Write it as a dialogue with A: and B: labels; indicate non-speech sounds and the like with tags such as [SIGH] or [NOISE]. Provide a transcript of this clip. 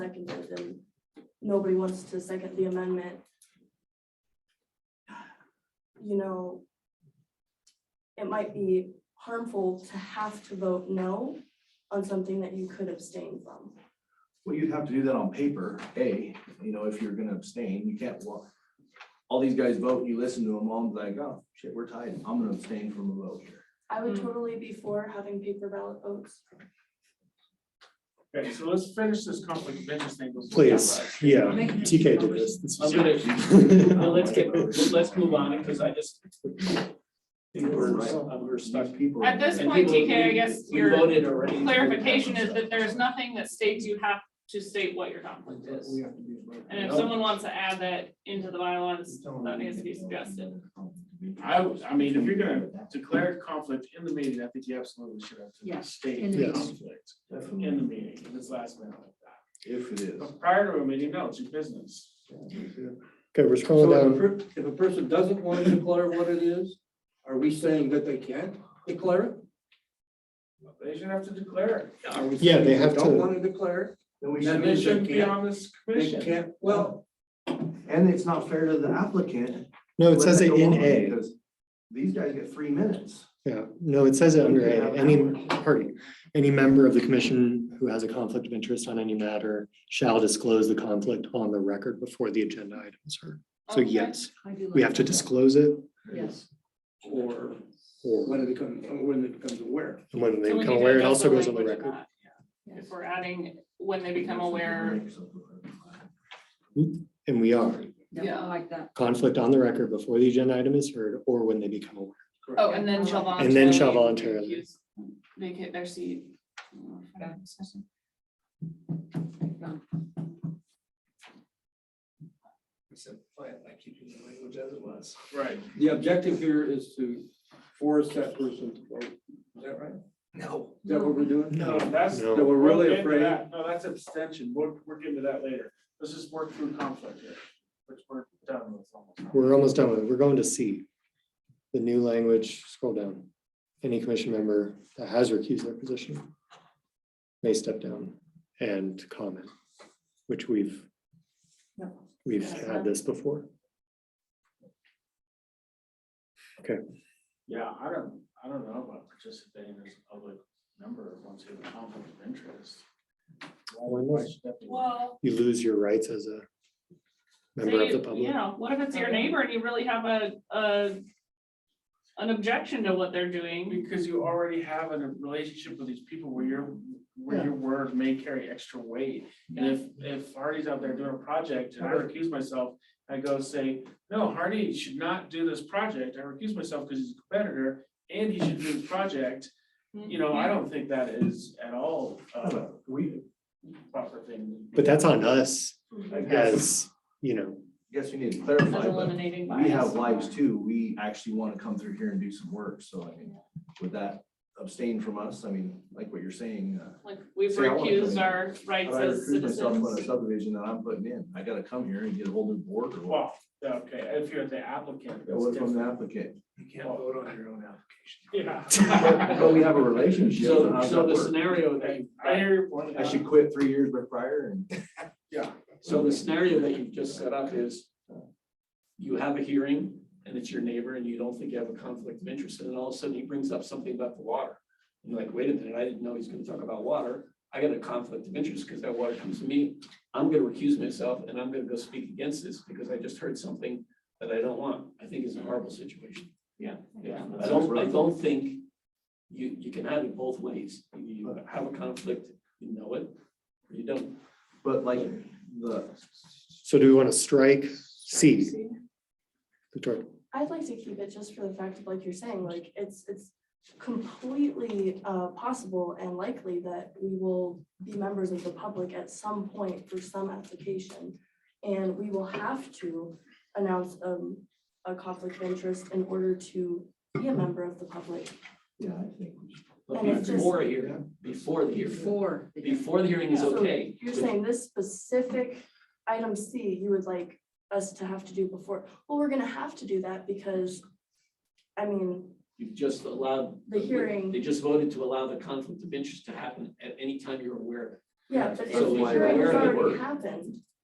A: seconded and nobody wants to second the amendment. You know, it might be harmful to have to vote no on something that you could abstain from.
B: Well, you'd have to do that on paper, A, you know, if you're gonna abstain, you can't walk. All these guys vote, you listen to them all, and be like, oh, shit, we're tied, I'm gonna abstain from a vote here.
A: I would
C: Hmm.
A: totally be for having paper ballot votes.
D: Okay, so let's finish this conflict of interest thing. before we
E: Please,
D: have, uh,
E: yeah, TK did this. This
F: I'm
E: was-
F: gonna, well, let's get, let's move on, because I just. think we're, uh,
G: um,
F: we're stuck.
B: These people-
C: At this point, TK, I guess
F: We
C: your
F: voted already.
C: clarification is that there's nothing that states you have to state what your conflict is. And if someone wants to add that into the bylaws, that needs to be suggested.
D: I, was- I mean, if you're gonna declare conflict in the meeting, I think you absolutely should have
H: Yeah,
D: to state
H: in
E: the
D: the
E: Yes.
D: conflict in the meeting, in this last minute like that.
B: If it is.
D: But Prior to a meeting, no, it's your business.
E: Okay, we're
G: So
E: scrolling
G: if a
E: down.
G: per- if a person doesn't want to declare what it is, are we saying that they can't declare it?
D: They should have to declare it.
G: Are we
E: Yeah,
G: saying
E: they have
G: Don't
E: to-
G: want to declare, it?
B: Then we
D: Then
B: should,
D: they
G: means they
D: shouldn't be
G: can't-
D: on this
G: they
D: commission.
G: can't, well,
B: and it's not fair to the applicant.
E: No, it
B: Let
E: says
B: that
E: it
B: go
E: in
B: on,
E: A.
B: because These guys get three minutes.
E: Yeah, no, it says it under
B: Yeah,
E: A.
B: that
E: Any
B: one.
E: party, any member of the commission who has a conflict of interest on any matter shall disclose the conflict on the record before the agenda items are. So
C: Okay.
E: yes,
H: I do
E: we
H: like
E: have to
H: that.
E: disclose it
H: Yes,
G: or
E: or
G: when it becomes, when it becomes aware.
E: and when they
C: So we
E: become
C: need to
E: aware, it
C: adjust
E: also goes on the
C: language of
E: record.
C: that, yeah.
H: yes.
C: If we're adding, when they become aware,
E: And we are
H: Yeah, I like that.
E: conflict on the record before the agenda item is heard or when they become aware.
C: oh, and then shall voluntarily.
E: And then shall voluntarily.
C: use- Vacate their seat.
H: Yeah.
D: Right.
G: The objective here is to force that person to vote. Is that right?
B: No.
G: Is that what we're doing?
D: No, that's,
E: No.
G: That we're really
D: into
G: afraid.
D: that. No, that's abstention. We're, we're getting to that later. Let's just work through conflict here, which we're done with almost.
E: We're almost done with it. We're going to C. The new language, scroll down. Any commission member that has recused their position may step down and comment, which we've
H: Yep.
E: we've had this before.
D: Yeah, I don't, I don't know about participating as a public member once you have a conflict of interest.
E: Why not?
D: should that be-
C: Well,
E: You lose your rights as a
C: so
E: member of the
C: you,
E: public.
C: you know, what if it's your neighbor and you really have a, a, an objection to what they're doing?
D: Because you already have a relationship with these people where your, where your word may carry extra weight. And if, if Hardy's out there doing a project and I recuse myself, I go say, no, Hardy should not do this project. I recuse myself because he's a competitor and he should do the project.
B: Mm-hmm.
D: You know, I don't think that is at all, uh,
B: We,
D: proper thing.
E: But that's on us
B: I guess,
E: as, you know,
B: guess we need to
C: As
B: clarify, but
C: eliminating bias.
B: we have lives too. We actually want to come through here and do some work. So I mean, would that abstain from us? I mean, like what you're saying, uh,
C: Like, we've
B: See, I wanna come
C: recused
B: in.
C: our
B: I
C: rights as
B: recruit myself on a
C: citizens.
B: subdivision that I'm putting in. I gotta come here and get a whole new board or what?
D: Well, okay, if you're the applicant.
B: That
D: that's
B: was from the
D: different.
B: applicant.
F: You
D: can't vote
F: on your own
D: [LAUGHS] Yeah.
B: [LAUGHS] But we have a relationship. and
F: So,
B: how's
F: so
B: that
F: the
B: work?
F: scenario that,
D: I hear your point.
B: I should quit three years prior and
F: so the scenario that you've just set up is you have a hearing and it's your neighbor and you don't think you have a conflict of interest, and then all of a sudden he brings up something about the water. You're like, wait a minute, I didn't know he's gonna talk about water. I got a conflict of interest because that water comes to me. I'm gonna recuse myself and I'm gonna go speak against this because I just heard something that I don't want. I think is a horrible situation. Yeah, I don't, I don't think you, you can have it both ways. You have a conflict, you know it, or you don't.
B: But like the,
E: so do we want to strike C? Victoria,
A: I'd like to keep it just for the fact of like you're saying, like it's, it's completely uh possible and likely that we will be members of the public at some point for some application. And we will have to announce um a conflict of interest in order to be a member of the public.
B: yeah, I think. we should-
F: But
A: And it's just-
F: before a hearing, before the hearing,
H: Before. the-
F: before the hearing is
A: So
F: okay.
A: You're saying this specific item C, you would like us to have to do before, well, we're gonna have to do that because, I mean,
F: You've just allowed.
A: The hearing.
F: They just voted to allow the conflict of interest to happen at any time you're aware of it.
A: Yeah, but if
B: So
A: the
B: why-
A: hearing
B: where
A: has
B: did it
A: already
B: work?
A: happened,